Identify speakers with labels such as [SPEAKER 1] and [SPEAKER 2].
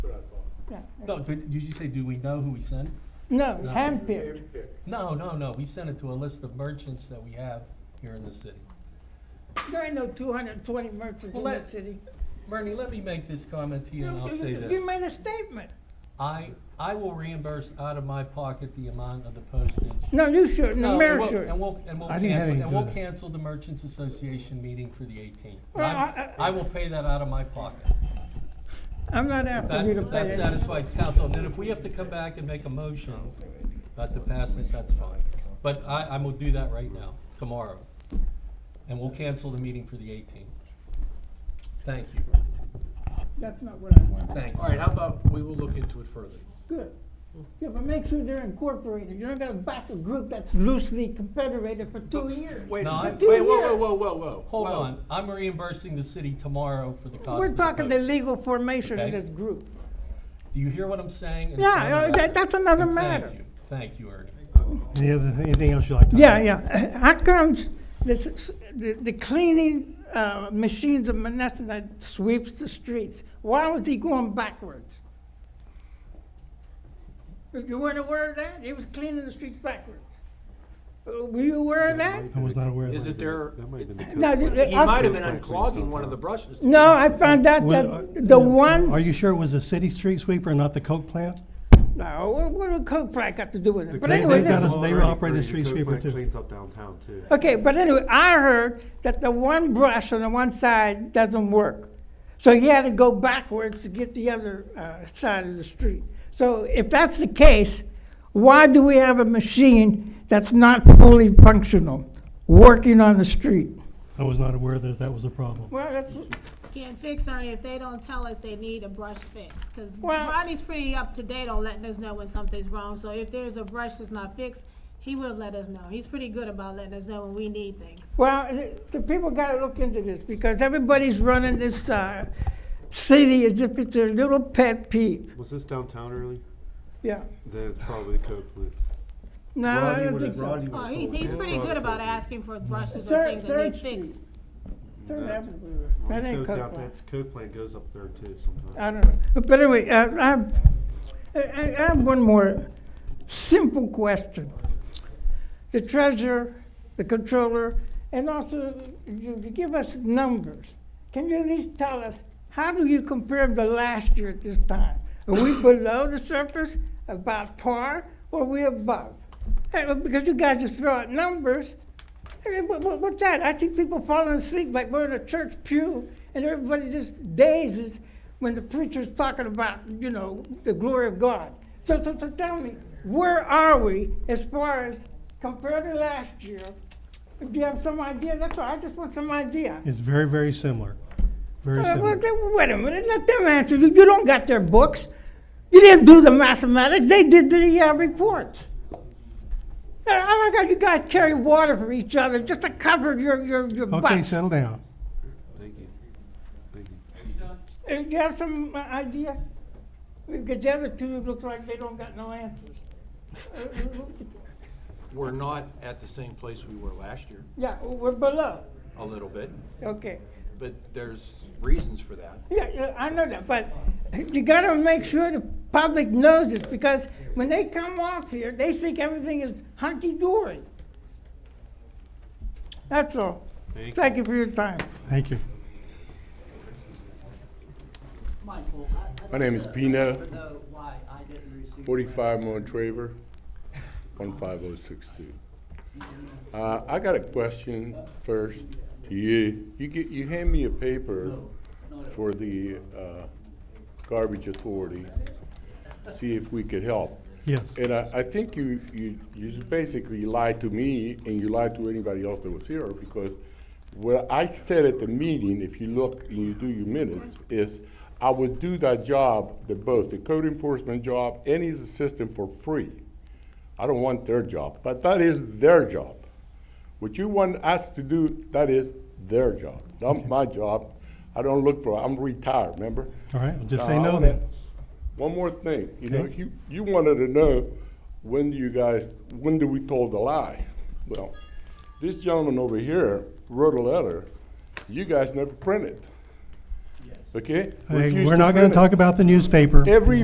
[SPEAKER 1] no.
[SPEAKER 2] No, did, did you say, do we know who we sent?
[SPEAKER 1] No,
[SPEAKER 2] No.
[SPEAKER 1] handpicked.
[SPEAKER 2] No, no, no, we sent it to a list of merchants that we have here in the city.
[SPEAKER 1] There ain't no two hundred and twenty merchants in
[SPEAKER 2] Well,
[SPEAKER 1] the
[SPEAKER 2] that-
[SPEAKER 1] city.
[SPEAKER 2] Bernie, let me make this comment to you and I'll
[SPEAKER 1] You-
[SPEAKER 2] say
[SPEAKER 1] you-
[SPEAKER 2] this.
[SPEAKER 1] You made a statement.
[SPEAKER 2] I, I will reimburse out of my pocket the amount of the postage.
[SPEAKER 1] No, you shouldn't, the
[SPEAKER 2] No,
[SPEAKER 1] mayor
[SPEAKER 2] and we'll-
[SPEAKER 1] should.
[SPEAKER 2] And we'll, and we'll
[SPEAKER 3] I didn't have
[SPEAKER 2] cancel, and
[SPEAKER 3] anything to do
[SPEAKER 2] we'll
[SPEAKER 3] with it.
[SPEAKER 2] cancel the Merchants Association meeting for the eighteenth.
[SPEAKER 1] Well,
[SPEAKER 2] I
[SPEAKER 1] I- I-
[SPEAKER 2] I will pay that out of my pocket.
[SPEAKER 1] I'm not after you to
[SPEAKER 2] That,
[SPEAKER 1] pay
[SPEAKER 2] that
[SPEAKER 1] it.
[SPEAKER 2] satisfies council, and then if we have to come back and make a motion not to pass this, that's fine. But I, I'm gonna do that right now, tomorrow, and we'll cancel the meeting for the eighteenth. Thank you,
[SPEAKER 1] That's not what I want.
[SPEAKER 2] thank
[SPEAKER 4] All
[SPEAKER 2] you.
[SPEAKER 4] right, how about, we will look into it further.
[SPEAKER 1] Good. Yeah, but make sure they're incorporated. You're not gonna back a group that's loosely confederated for two years.
[SPEAKER 4] Wait,
[SPEAKER 2] No, I-
[SPEAKER 4] wait, whoa, whoa, whoa, whoa, whoa.
[SPEAKER 2] Hold
[SPEAKER 4] whoa.
[SPEAKER 2] on, I'm reimbursing the city tomorrow for the cost
[SPEAKER 1] We're
[SPEAKER 2] of the
[SPEAKER 1] talking the
[SPEAKER 2] postage.
[SPEAKER 1] legal formation of
[SPEAKER 2] Okay.
[SPEAKER 1] this group.
[SPEAKER 2] Do you hear what I'm saying? It's
[SPEAKER 1] Yeah, uh,
[SPEAKER 2] another
[SPEAKER 1] that-
[SPEAKER 2] matter.
[SPEAKER 1] that's another
[SPEAKER 2] And
[SPEAKER 1] matter.
[SPEAKER 2] Thank you, thank you, Ernie.
[SPEAKER 3] Any other, anything else you'd like to?
[SPEAKER 1] Yeah, yeah. How comes this, s- the, the cleaning, uh, machines of Menneson that sweeps the streets? Why was he going backwards? You weren't aware of that? He was cleaning the streets backwards. Uh, Were you aware of that?
[SPEAKER 3] I was not aware of that.
[SPEAKER 4] Isn't there,
[SPEAKER 5] That might have been the.
[SPEAKER 1] No,
[SPEAKER 5] cook-
[SPEAKER 1] the-
[SPEAKER 4] he
[SPEAKER 1] I-
[SPEAKER 4] might have been unclogging one of the brushes.
[SPEAKER 1] No, I found out
[SPEAKER 3] Well,
[SPEAKER 1] that the
[SPEAKER 3] uh, Are
[SPEAKER 1] one,
[SPEAKER 3] you sure it was the city street sweeper and not the Coke plant?
[SPEAKER 1] no, what- what did Coke Black got to do with it? But
[SPEAKER 3] They-
[SPEAKER 1] anyway,
[SPEAKER 3] they've got
[SPEAKER 1] this-
[SPEAKER 3] us- they operate a street
[SPEAKER 5] Coke
[SPEAKER 3] sweeper
[SPEAKER 5] plant
[SPEAKER 3] too.
[SPEAKER 5] Cleans up downtown too.
[SPEAKER 1] Okay, but anyway, I heard that the one brush on the one side doesn't work. So he had to go backwards to get the other uh, side of the street. So if that's the case, why do we have a machine that's not fully functional, working on the street?
[SPEAKER 3] I was not aware that that was a problem.
[SPEAKER 1] Well, that's,
[SPEAKER 6] Can't fix on it if they don't tell us they need a brush fix, because
[SPEAKER 1] Well-
[SPEAKER 6] Ronnie's pretty up to date on letting us know when something's wrong, so if there's a brush that's not fixed, he would have let us know. He's pretty good about letting us know when we need things.
[SPEAKER 1] well, the- the people gotta look into this because everybody's running this uh, city as if it's a little pet peeve.
[SPEAKER 5] Was this downtown early?
[SPEAKER 1] Yeah.
[SPEAKER 5] Then it's probably the Coke plant.
[SPEAKER 1] No, I don't think so.
[SPEAKER 6] Oh, he's, he's pretty good about asking for brushes or
[SPEAKER 1] Third-
[SPEAKER 6] things that
[SPEAKER 1] Third
[SPEAKER 6] need fixed.
[SPEAKER 1] Street. Third
[SPEAKER 5] That-
[SPEAKER 1] Avenue, we were-
[SPEAKER 5] Well,
[SPEAKER 1] that
[SPEAKER 5] it
[SPEAKER 1] ain't
[SPEAKER 5] shows
[SPEAKER 1] Coke
[SPEAKER 5] down-
[SPEAKER 1] Black.
[SPEAKER 5] that's Coke plant goes up there too sometimes.
[SPEAKER 1] I don't know. But anyway, uh, I, have- I, I I have one more simple question. The treasurer, the controller, and also you you give us numbers. Can you at least tell us, how do you compare them to last year at this time? Are we below the surface, about par, or are we above? Hey, well, Because you guys just throw out numbers. I mean, what, what- what's that? I see people falling asleep like we're in a church pew, and everybody just dazes when the preacher's talking about, you know, the glory of God. So, so, so tell me, where are we as far as compared to last year? Do you have some idea? That's all. I just want some idea.
[SPEAKER 3] It's very, very similar, very
[SPEAKER 1] Uh, well,
[SPEAKER 3] similar.
[SPEAKER 1] then, wait a minute. Let them answer. You You don't got their books. You didn't do the mathematics. They did the uh, reports. Uh, I like how you guys carry water for each other just to cover your your your
[SPEAKER 3] Okay,
[SPEAKER 1] butts.
[SPEAKER 3] settle down.
[SPEAKER 5] Thank you. Thank you.
[SPEAKER 1] Uh, you have some uh, idea? Because the other two look like they don't got no answers. Uh,
[SPEAKER 4] We're not at the same place we were last year,
[SPEAKER 1] yeah, we're below.
[SPEAKER 4] a little bit,
[SPEAKER 1] Okay.
[SPEAKER 4] but there's reasons for that.
[SPEAKER 1] Yeah, yeah, I know that, but you gotta make sure the public knows this, because when they come off here, they think everything is hunky-dory. That's all. Thank you for your time.
[SPEAKER 3] Thank you.
[SPEAKER 7] My name is Pino,
[SPEAKER 8] So why I didn't receive.
[SPEAKER 7] 45 Montraver, 15062. Uh, I got a question first to you. You get, you hand me a paper for the uh, garbage authority, see if we could help.
[SPEAKER 3] Yes.
[SPEAKER 7] And I, I think you, you, you basically lied to me and you lied to anybody else that was here because what I said at the meeting, if you look and you do your minutes, is I would do that job, the both, the code enforcement job and his assistant for free. I don't want their job, but that is their job. What you want us to do, that is their job, not my job. I don't look for, I'm retired, remember?
[SPEAKER 3] All right, well, just
[SPEAKER 7] Uh,
[SPEAKER 3] say
[SPEAKER 7] I
[SPEAKER 3] no
[SPEAKER 7] wanna-
[SPEAKER 3] then.
[SPEAKER 7] One more thing, you know,
[SPEAKER 3] Okay.
[SPEAKER 7] you, you wanted to know, when do you guys, when do we told the lie? Well, this gentleman over here wrote a letter, you guys never printed. Okay?
[SPEAKER 3] Hey,
[SPEAKER 7] Refused
[SPEAKER 3] we're not
[SPEAKER 7] to
[SPEAKER 3] gonna
[SPEAKER 7] print it.
[SPEAKER 3] talk about the newspaper.
[SPEAKER 7] Every